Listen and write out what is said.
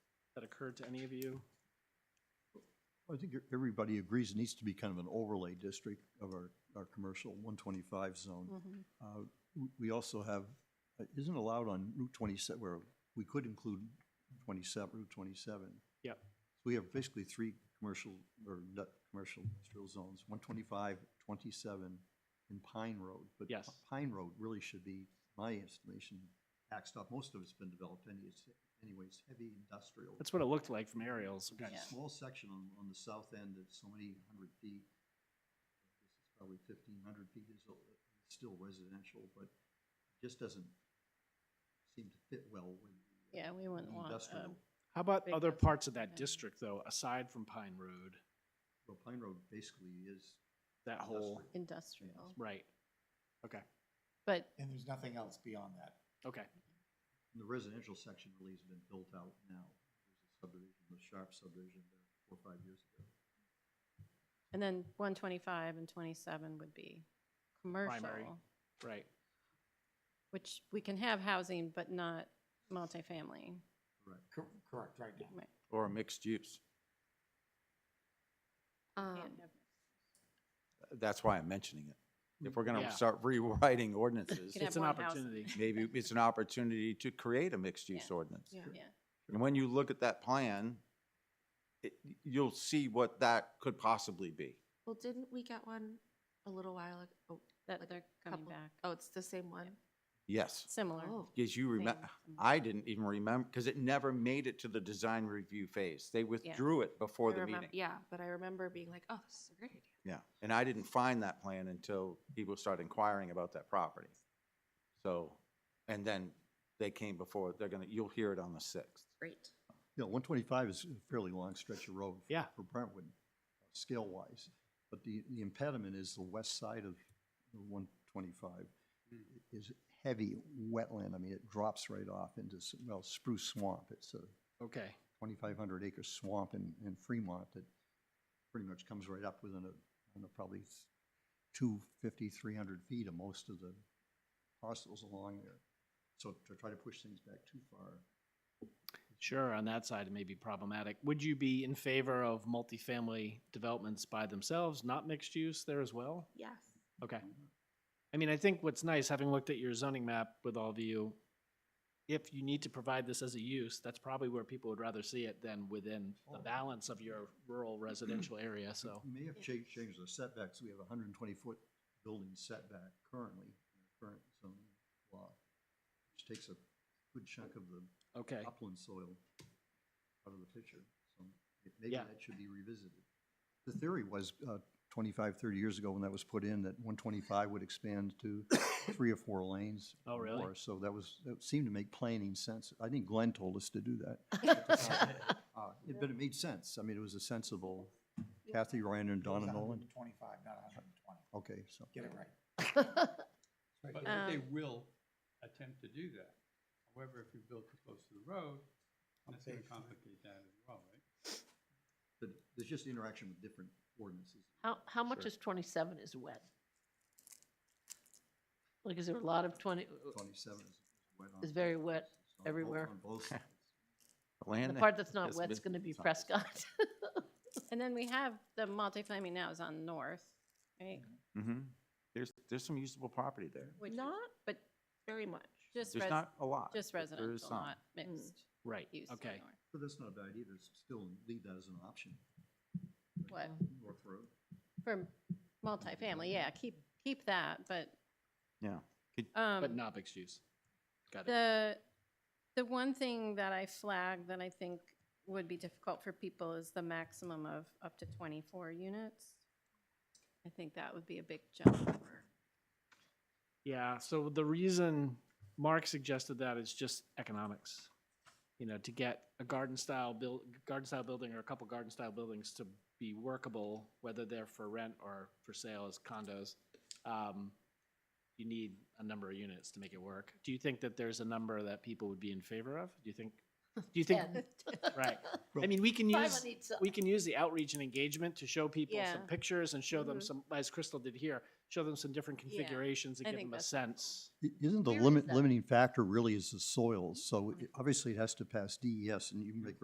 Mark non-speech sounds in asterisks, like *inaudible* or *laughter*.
that occurred to any of you? I think everybody agrees it needs to be kind of an overlay district of our, our commercial 125 zone. Mm. Mm-hmm. Uh, we- We also have, uh, isn't allowed on Route 27, where we could include 27, Route 27. Yep. So we have basically three commercial, or not commercial industrial zones, 125, 27, and Pine Road. Yes. But Pine Road really should be, my estimation, backed up. Most of it's been developed any- it's- anyway, it's heavy industrial. That's what it looked like from aerials. There's Yeah. a small section on, on the south end that's so many hundred feet. This is probably fifteen hundred feet, is a- it's still residential, but just doesn't seem to fit well with the, uh, Yeah, we wouldn't the want, uh, industrial. How about Big other industrial parts of that area. district, though, aside from Pine Road, Well, Pine Road basically is. that whole, industrial. industrial, right? Okay, but And there's nothing else beyond that. okay, And The residential section really has been built out now. There's a subdivision, the Sharp subdivision, there four or five years ago. And then one twenty-five and twenty-seven would be commercial, right. which we can have housing, but not multifamily. Correct. Cor- Correct, right now. Right. Or mixed use. Can't Um, have- That's why I'm mentioning it. If we're going Yeah. to start *laughs* rewriting ordinances, Can have It's an one house. opportunity. *laughs* maybe it's an opportunity to create a mixed-use Yeah. ordinance. Yeah. Yeah, And when you look at that plan, it, you'll see what that could possibly be. well, didn't we get one a little while ago? Oh, that Like they're coming couple- back, Oh, it's the same one? Yes, similar. Oh, because you remember, thing. I didn't even remember, because it never made it to the design review phase. They withdrew it before I the remem- meeting. Yeah, but I remember being like, oh, this is a great idea. Yeah, and I didn't find that plan until people started inquiring about that property. So, and then they came before, they're gonna, you'll hear it on the sixth. Great. Yeah, one twenty-five is a fairly long stretch of road. for- Yeah. For Brentwood, scale-wise, but the, the impediment is the west side of one twenty-five is heavy wetland, I mean, it drops right off into, s- well, Spruce Swamp, it's a Okay, twenty-five hundred acre swamp in, in Fremont that pretty much comes right up within a, I don't know, probably s- 250, 300 feet of most of the parcels along there. So to try to push things back too far, sure, on that side, it may be problematic. Would you be in favor of multifamily developments by themselves, not mixed use there as well? Yes. Okay. I mean, I think what's nice, having looked at your zoning map with all of you, if you need to provide this as a use, that's probably where people would rather see it than within the Oh. balance of your rural residential area, so. We may have changed, changed the setbacks. We have a hundred and twenty foot building setback currently, in the current zoning law, which takes a good chunk of the Okay, upland soil out of the picture. So it- maybe Yeah. that should be revisited. The theory was, uh, 25, 30 years ago when that was put in, that one twenty-five would expand *coughs* to three or four lanes. Oh, or really? more. So that was, that seemed to make planning sense. I think Glenn told us to do *laughs* that. Uh, it- But it made sense. I mean, it was a sensible, Kathy Ryan and Donna Nolan. Twenty-five, not hundred and twenty. Okay, so. Get it right. Right, but they Um, will attempt to do that. However, if you build too close to the road, that's gonna complicate that as well, right? But there's just interaction with different ordinances. How, how much is twenty-seven is wet? Like, is there a lot of twenty, Twenty-seven is wet on. It's very wet It's on both- *laughs* everywhere. On both sides. the Land part that's not has wet's been- gonna be it's not- Prescott? And then we have the multifamily now is on north, right? Mhm. There's, there's some usable property there. Which is- Not But very much. just There's res, not a lot. just but there is residential, some. not Mm. mixed right, use. on okay. north. But that's not a bad idea, to still leave that as an option, What, North Road. for multifamily, yeah, keep, keep that, but. Yeah. Um. But not mixed use. Got it. The, the one thing that I flagged that I think would be difficult for people is the maximum of up to 24 units. I think that would be a big jump over. Yeah, so the reason Mark suggested that is just economics. You know, to get a garden style build, garden style building or a couple garden style buildings to be workable, whether they're for rent or for sale as condos, um, you need a number of units to make it work. Do you think that there's a number that people would be in favor of? Do you think, do you *laughs* think, Ten. right? I Well- mean, we can Five use on each side. we can use the outreach and engagement to show people some Yeah. pictures and show them Mhm. some, as Crystal did here, show them some different Yeah, configurations I and give think them a that's sense. I- Isn't the Where is limit, that? Oh limiting factor really is the soils, so it- obviously it has to pass DES E and you can make